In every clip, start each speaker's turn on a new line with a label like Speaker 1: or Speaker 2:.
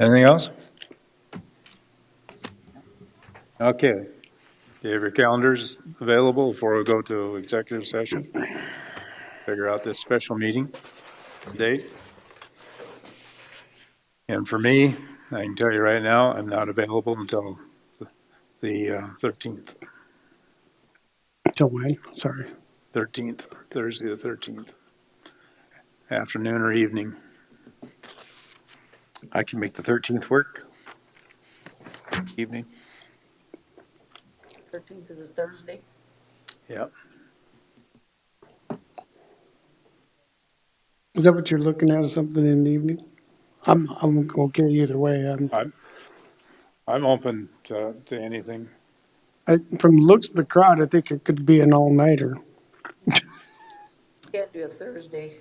Speaker 1: Anything else? Okay. Do you have your calendars available before we go to executive session? Figure out this special meeting date. And for me, I can tell you right now, I'm not available until the uh, 13th,
Speaker 2: Till when? Sorry.
Speaker 1: 13th, Thursday the 13th, afternoon or evening.
Speaker 3: I can make the 13th work. Evening.
Speaker 4: Thirteenth is a Thursday.
Speaker 1: Yep.
Speaker 2: Is that what you're looking at, something in the evening? I'm, I'm okay either way. I'm,
Speaker 1: I'm open to, to anything.
Speaker 2: I, from the looks of the crowd, I think it could be an all-nighter.
Speaker 4: Can't do a Thursday.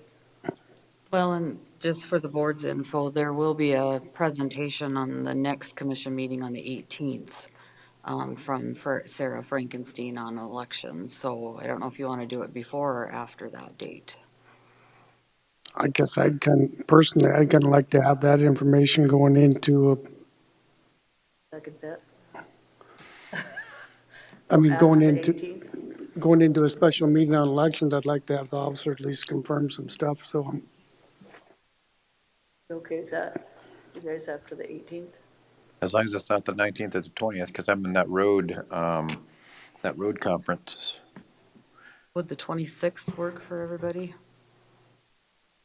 Speaker 5: Well, and just for the board's info, there will be a presentation on the next commission meeting on the 18th um, from Fr- Sarah Frankenstein on elections. So I don't know if you want to do it before or after that date.
Speaker 2: I guess I'd kind, personally, I'd kind of like to have that information going into, a-
Speaker 4: Second that.
Speaker 2: I mean, going
Speaker 4: After the
Speaker 2: into,
Speaker 4: 18th?
Speaker 2: going into a special meeting on elections, I'd like to have the officer at least confirm some stuff, so I'm,
Speaker 4: You Okay, with that, you guys after the eighteenth?
Speaker 3: As long as it's not the 19th or the 20th, because I'm in that road, um, that road conference.
Speaker 5: Would the 26th work for everybody?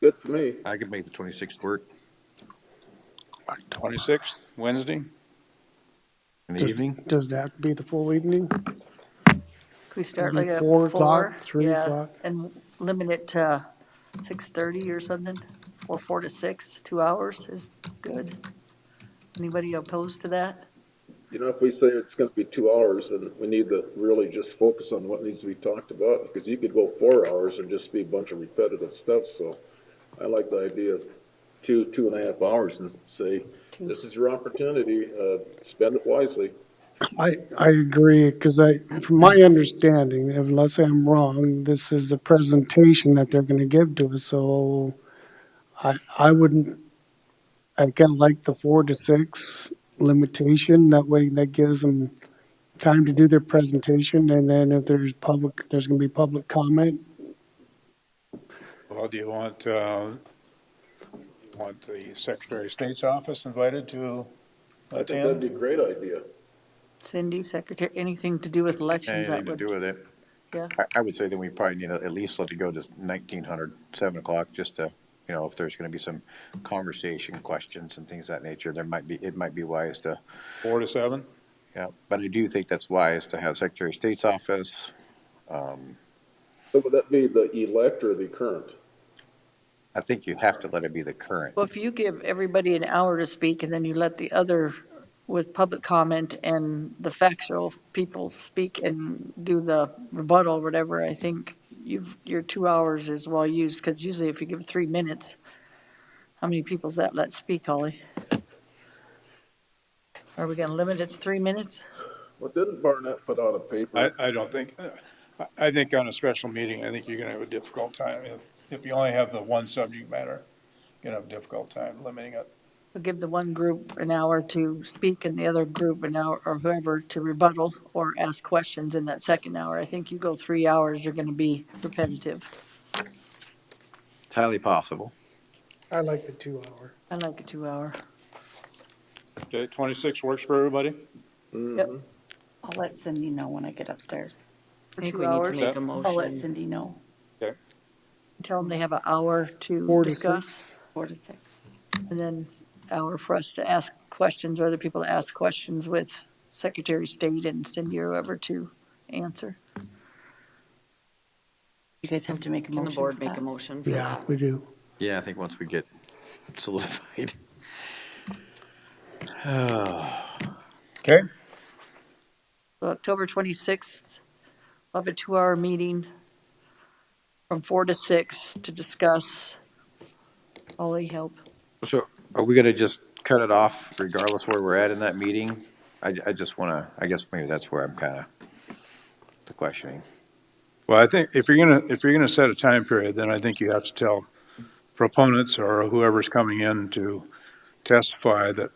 Speaker 6: Good for me.
Speaker 3: I could make the 26th work
Speaker 1: 26th, Wednesday?
Speaker 3: in the
Speaker 2: Does-
Speaker 3: evening.
Speaker 2: does that be the full evening?
Speaker 4: Can we start
Speaker 2: Maybe
Speaker 4: like at
Speaker 2: four
Speaker 4: four?
Speaker 2: o'clock, three
Speaker 4: Yeah,
Speaker 2: o'clock.
Speaker 4: And limit it to six-thirty or something, or four to six, two hours is good. Anybody opposed to that?
Speaker 6: You know, if we say it's gonna be two hours, then we need to really just focus on what needs to be talked about, because you could go four hours and just be a bunch of repetitive stuff, so I like the idea of two, two and a half hours and say, this is your opportunity, uh, spend it wisely.
Speaker 2: I, I agree, because I, from my understanding, unless I'm wrong, this is a presentation that they're gonna give to us, so I, I wouldn't, I kinda like the four to six limitation, that way that gives them time to do their presentation, and then if there's public, there's gonna be public comment,
Speaker 1: Well, do you want, uh, want the Secretary of State's office invited to
Speaker 6: I think that'd
Speaker 1: attend?
Speaker 6: be a great idea.
Speaker 4: Cindy, secretary, anything to do with elections that
Speaker 3: Anything to
Speaker 4: would,
Speaker 3: do with it.
Speaker 4: yeah,
Speaker 3: I, I would say then we probably need to at least let it go to 1900, 7 o'clock, just to, you know, if there's going to be some conversation questions and things of that nature, there might be, it might be wise to,
Speaker 1: Four to seven?
Speaker 3: yeah. But I do think that's wise to have Secretary of State's office. Um,
Speaker 6: So would that be the elect or the current?
Speaker 3: I think you have to let it be the current.
Speaker 4: Well, if you give everybody an hour to speak and then you let the other with public comment and the factual people speak and do the rebuttal, or whatever, I think you've, your two hours is well used, because usually if you give three minutes, how many people's that let speak, Holly? Are we gonna limit it to three minutes?
Speaker 6: Well, didn't Barnett put out a
Speaker 1: I,
Speaker 6: paper?
Speaker 1: I don't think, uh, I- I think on a special meeting, I think you're gonna have a difficult time. If, if you only have the one subject matter, you're gonna have a difficult time limiting it.
Speaker 4: We'll Give the one group an hour to speak and the other group an hour, or whoever, to rebuttal or ask questions in that second hour. I think you go three hours, you're gonna be repetitive.
Speaker 3: It's highly possible.
Speaker 2: I like the two hour.
Speaker 4: I like a two-hour.
Speaker 1: Okay, twenty-six works for everybody?
Speaker 6: Hmm.
Speaker 7: I'll let Cindy know when I get upstairs.
Speaker 4: For
Speaker 5: I think
Speaker 4: two
Speaker 5: we need to
Speaker 4: hours?
Speaker 5: make
Speaker 1: Yeah.
Speaker 5: a
Speaker 7: I'll let
Speaker 5: motion.
Speaker 7: Cindy know,
Speaker 4: Tell them they have an hour
Speaker 2: Four to
Speaker 4: to discuss,
Speaker 2: six.
Speaker 7: four to six.
Speaker 4: and then hour for us to ask questions, or other people to ask questions with Secretary of State and Cindy or whoever to answer.
Speaker 7: You guys have to make a
Speaker 5: Can the
Speaker 7: motion for
Speaker 5: board make a
Speaker 7: that.
Speaker 5: motion for
Speaker 2: Yeah,
Speaker 5: that?
Speaker 2: we do.
Speaker 3: Yeah, I think once we get solidified.
Speaker 1: Okay.
Speaker 4: So October 26th, we'll have a two-hour meeting from four to six to discuss. Ollie, help.
Speaker 3: So are we gonna just cut it off regardless where we're at in that meeting? I, I just wanna, I guess maybe that's where I'm kinda the questioning.
Speaker 1: Well, I think if you're gonna, if you're gonna set a time period, then I think you have to tell proponents or whoever's coming in to testify that